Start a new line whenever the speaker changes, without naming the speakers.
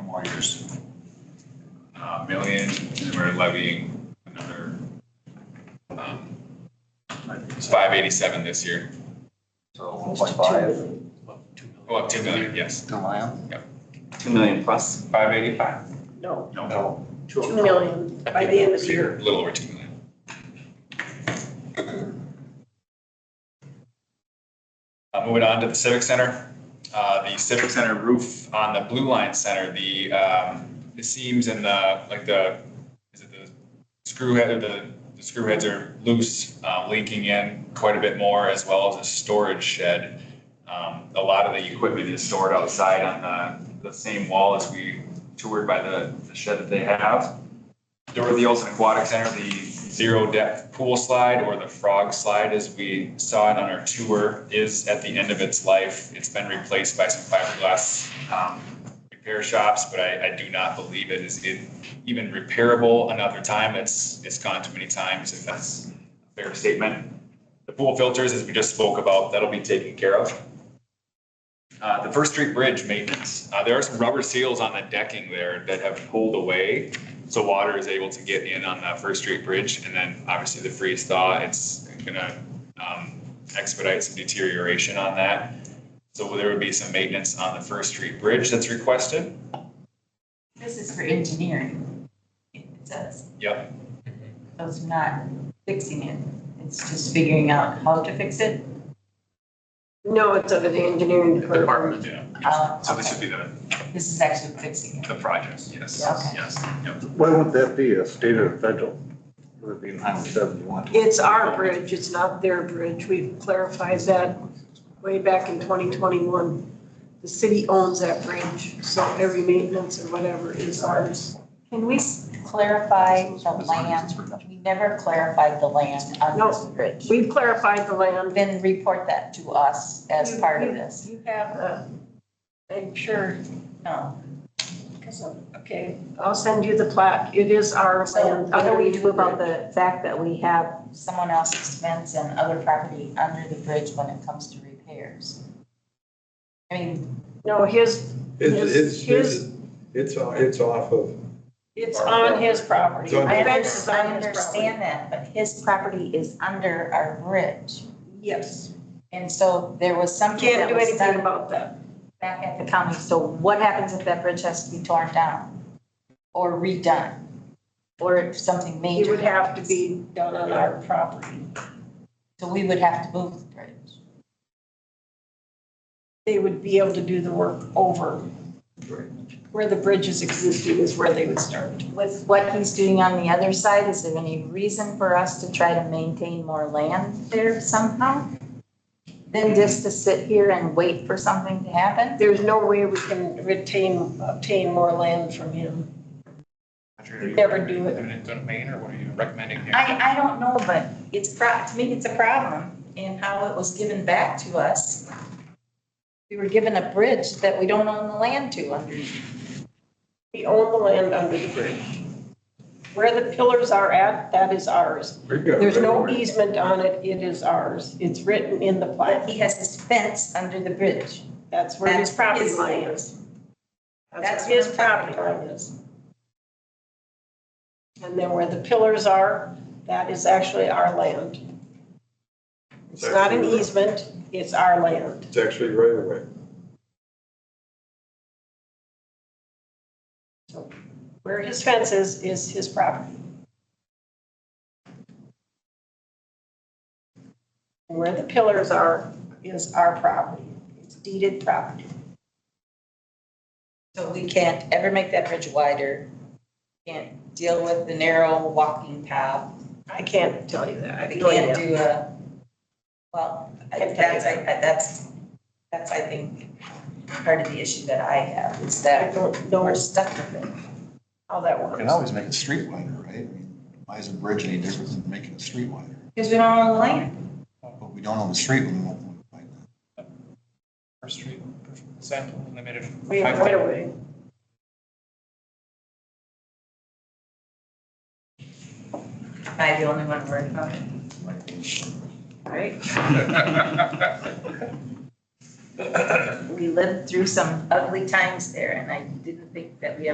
more years. Uh, million, and we're levying another, um, it's five eighty-seven this year.
So one point five,
Oh, up two million, yes,
two million?
Two million plus?
five eighty-five.
No,
No.
two million by the end of the
A
year.
little over two million. Uh, moving on to the Civic Center, uh, the Civic Center roof on the Blue Line Center, the, um, the seams and the, like the, is it the screw head, or the, the screw heads are loose, uh, leaking in quite a bit more, as well as a storage shed. Um, a lot of the equipment is stored outside on the, the same wall as we toured by the, the shed that they have. Dorothy Olson Aquatic Center, the zero depth pool slide or the frog slide, as we saw it on our tour, is at the end of its life. It's been replaced by some fiberglass um, repair shops, but I, I do not believe it is it even repairable another time. It's, it's gone too many times, if that's a fair statement. The pool filters, as we just spoke about, that'll be taken care of. Uh, the First Street Bridge maintenance, uh, there are some rubber seals on the decking there that have pulled away. So water is able to get in on that First Street Bridge and then obviously the freeze thaw, it's gonna um, expedite some deterioration on that. So there would be some maintenance on the First Street Bridge that's requested.
This is for engineering. It says,
Yep,
so it's not fixing it, it's just figuring out how to fix it.
No, it's under the engineering department.
yeah.
Uh,
So this should be the,
This is actually fixing it.
the project, yes,
Okay.
yes, yep.
Why would that be a state or federal? Would it be nine seventy-one?
It's our bridge, it's not their bridge. We've clarified that way back in 2021. The city owns that bridge, so every maintenance or whatever is ours.
Can we s- clarify the land? We never clarified the land on this bridge.
We've clarified the land.
Then report that to us as part of this.
You have a, I'm sure,
No.
because, okay, I'll send you the plaque. It is our
So
land.
what do we do about
that?
the fact that we have someone else's fence and other property under the bridge when it comes to repairs? I mean,
No, his,
It's,
His-
it's, his- it's, o- it's off of,
it's on his property.
It's on-
I
The fence is
understand,
on his
I
property.
understand that, but his property is under our bridge.
Yes,
And so there was something
can't
that
do
was
anything
done
about that.
back at the county. So what happens if that bridge has to be torn down? Or redone? Or if something major?
It would have to
happens?
be done on our property.
So we would have to move the bridge.
They would be able to do the work over. Where the bridge is existing is where they would start.
With what he's doing on the other side, is there any reason for us to try to maintain more land there somehow? Than just to sit here and wait for something to happen?
There's no way we can retain, obtain more land from him. You never do it.
Eminent domain, or what are you recommending here?
I, I don't know, but it's pro, to me, it's a problem in how it was given back to us. We were given a bridge that we don't own the land to underneath.
We own the land under the bridge. Where the pillars are at, that is ours.
we've got.
There's no
railroad.
easement on it, it is ours. It's written in the
But
plat.
he has his fence under the bridge.
That's where his
That's
property
his
line
land.
is.
That's
That's where his
what I'm
property line is. And then where the pillars are, that is actually our land. It's not an
actually-
easement, it's our land.
It's actually right away.
Where his fence is, is his property. And where the pillars are, is our property. It's deeded property.
So we can't ever make that bridge wider. Can't deal with the narrow walking path.
I can't tell you that. I have
We
no
can't
idea.
do a, well, I- that's, I- I- that's, that's, I think, part of the issue that I have, is
I
that
don't
we're
know
stuck with it.
how that
Can
works.
always make a street wider, right? I mean, Why is a bridge any different than making a street wider?
Because we don't own the land.
But we don't own the street when we won't want to find that.
First Street, is that limited?
We have right of way.
Am I the only one worried about it?
Right.
we lived through some ugly times there and I didn't think that we